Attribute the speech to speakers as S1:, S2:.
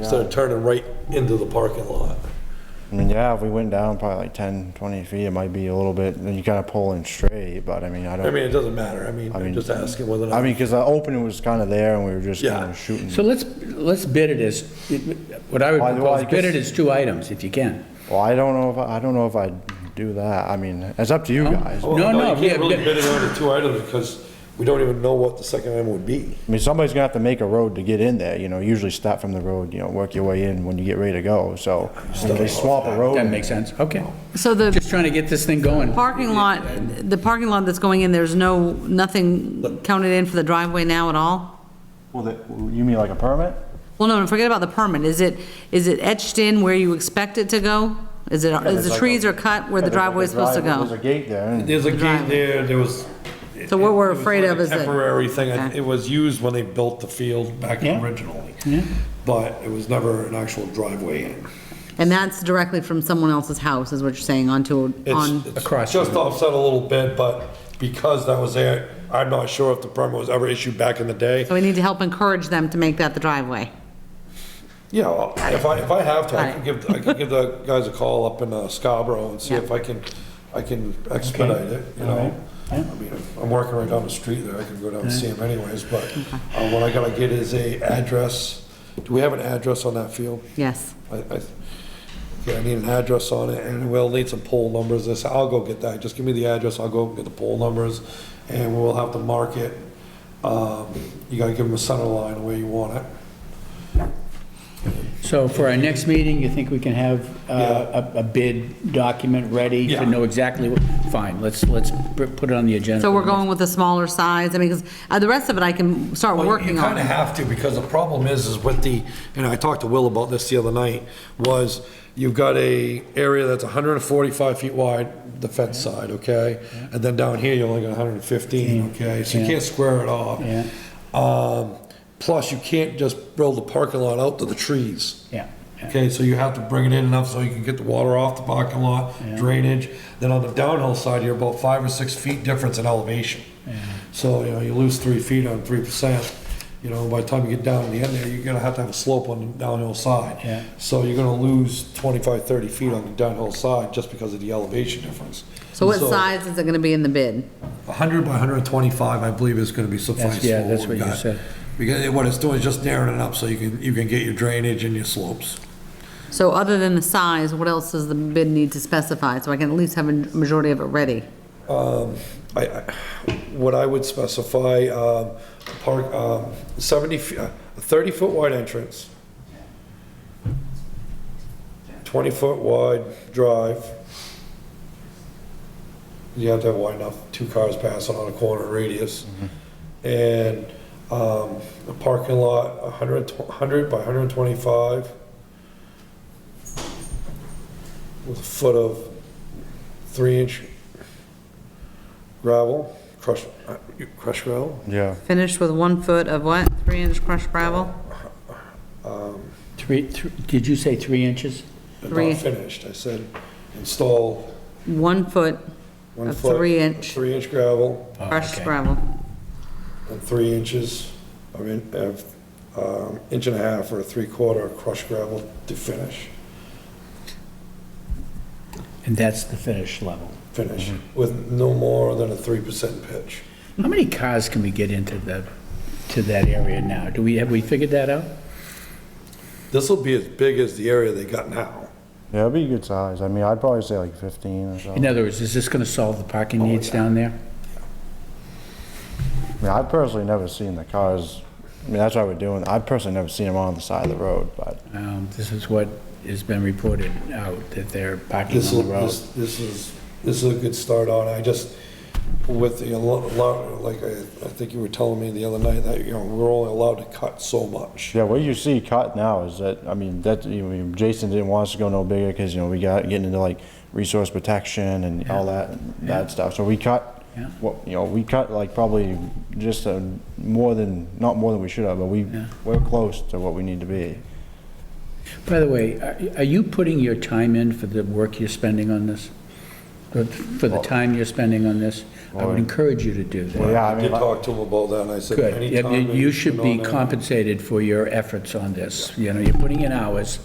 S1: Instead of turning right into the parking lot.
S2: I mean, yeah, if we went down probably like 10, 20 feet, it might be a little bit, then you gotta pull in straight, but I mean, I
S1: I
S2: don't,
S1: mean, it doesn't matter. I mean, I'm
S2: mean-
S1: just asking whether or
S2: I
S1: not,
S2: mean, because the opening was kind of there and we were just kind
S1: Yeah.
S2: of shooting.
S3: So let's, let's bid it as, what I would
S2: Why do I
S3: propose, bid it
S2: guess-
S3: as two items, if you can.
S2: Well, I don't know if, I I don't know if I'd do that. I mean, it's up to you guys. I
S3: No,
S1: Well,
S3: no,
S1: Oh, You
S3: yeah,
S1: can't really
S3: but-
S1: bid it on the two items because we don't even know what the second item would be.
S2: mean, somebody's gonna have to make a road to get in there, you know, usually start from the road, you know, work your way in when you get ready to go, so. If they swap a road.
S3: that makes sense, okay.
S4: So the
S3: Just trying to get this thing going.
S4: parking lot, the parking lot that's going in, there's no, nothing counted in for the driveway now at all?
S2: Well, that- you mean like a permit?
S4: Well, no, no, forget about the permit. Is it, is it etched in where you expect it to go? Is it, is the trees are cut where the driveway is supposed to
S2: There's a
S4: go?
S2: gate there. and-
S1: There's a gate
S4: Driveway.
S1: there, there was.
S4: So what we're
S1: it was
S4: afraid
S1: like
S4: of
S1: a
S4: is that-
S1: Temporary thing. I-
S4: Okay.
S1: It was used when they built the field back
S3: Yeah.
S1: originally.
S3: Yeah.
S1: But it was never an actual driveway in.
S4: And that's directly from someone else's house, is what you're saying, onto, a-
S1: It's,
S4: on,
S1: it's
S3: Across
S1: just
S3: from-
S1: offset a little bit, but because that was there, I'm not sure if the permit was ever issued back in the day.
S4: so we need to help encourage them to make that the driveway.
S1: Yeah, well, if I, if I have to, I
S4: Got
S1: could
S4: it.
S1: give, I could give the guys a call up in uh, Scarborough and see
S4: Yeah.
S1: if I can, I can expedite it, you know? I mean, I'm working right down the street there, I can go down and see him anyways, but uh, what I gotta get is a address. Do we have an address on that field?
S4: Yes.
S1: I, I, yeah, I need an address on it, and we'll need some poll numbers, this, I'll go get that, just give me the address, I'll go get the poll numbers, and we'll have to mark it. Um, you gotta give them a center line the way you want it.
S3: So for our next meeting, you think we can have uh, a a bid document ready
S1: Yeah.
S3: to know exactly, what? fine, let's, let's pr- put it on the agenda.
S4: So we're going with a smaller size? I mean, because the rest of it I can start
S1: Well,
S4: working
S1: You kind of
S4: on.
S1: have to, because the problem is, is with the, and I talked to Will about this the other night, was you've got a area that's 145 feet wide, the fence side, okay? And then down here, you're only got 115, okay? So you
S3: yeah.
S1: can't square it off.
S3: Yeah.
S1: Um, Plus, you can't just build the parking lot out to the trees.
S3: Yeah, yeah.
S1: Okay, so you have to bring it in enough so you can get the water off the parking lot, drainage. Then on the downhill side, you're about five or six feet difference in elevation. So, you know, you lose three feet on three percent. You know, by the time you get down in the end there, you're gonna have to have a slope on the downhill side.
S3: Yeah.
S1: So you're gonna lose 25, 30 feet on the downhill side just because of the elevation difference.
S4: So what size is it gonna be in the bid?
S1: hundred by hundred and twenty-five, I believe is gonna be suffice.
S3: That's- yeah,
S1: for
S3: that's
S1: we've
S3: what you
S1: got.
S3: said.
S1: Because what it's doing is just narrowing it up so you can, you can get your drainage and your slopes.
S4: So other than the size, what else does the bid need to specify, so I can at least have a majority of it ready?
S1: I, I- what I would specify, um, park, um, 70, fe- uh, a 30-foot wide entrance, 20-foot wide drive. You have to have wide enough, two cars passing on a corner radius. And um, a parking lot, 100 tw- 100 by 125 with a foot of three-inch gravel, crushed, uh, crushed gravel?
S2: Yeah.
S4: Finished with one foot of what, three-inch crushed gravel?
S3: Three, thr- did you say three inches?
S4: Three.
S1: Not finished, I said install
S4: One foot
S1: one
S4: Of
S1: foot.
S4: three inch.
S1: Three inch gravel
S3: Oh,
S4: crushed
S3: okay.
S4: gravel.
S1: and three inches of, in- of, um, inch and a half or three quarter crushed gravel to finish,
S3: And that's the finish level.
S1: finish, with no more than a three percent pitch.
S3: How many cars can we get into the, to that area now? Do we, have we figured that out?
S1: This'll be as big as the area they got now.
S2: Yeah, it'd be a good size. I mean, I'd probably say like 15 or so.
S3: In other words, is this going to solve the
S1: Oh,
S3: parking needs down there?
S2: I mean, I've personally never seen the cars, I mean, that's why we're doing, I've personally never seen them on the side of the road, but
S3: Um, This is what has been reported out, that they're parking on
S1: This'll,
S3: the road.
S1: this, this is, this is a good start on, I just, with the, allo- allo- like, I, I think you were telling me the other night that, you know, we're only allowed to cut so much.
S2: yeah, what you see cut now is that, I mean, that, you know, Jason didn't want us to go no bigger because, you know, we got, getting into like resource protection and all that, that stuff. So we cut,
S3: Yeah.
S2: what, you know, we cut like probably just uh more than, not more than we should have, but we,
S3: Yeah.
S2: we're close to what we need to be.
S3: By the way, are- are you putting your time in for the work you're spending on this? But for the time you're spending on this, I would encourage you to do that.
S2: Yeah,
S1: I
S2: I
S1: did
S2: mean, like-
S1: talk to him about that, and I said,
S3: Good.
S1: anytime.
S3: Yeah,
S1: that
S3: You should
S1: can
S3: be
S1: on there-
S3: compensated for your efforts on this. You know, you're putting in hours.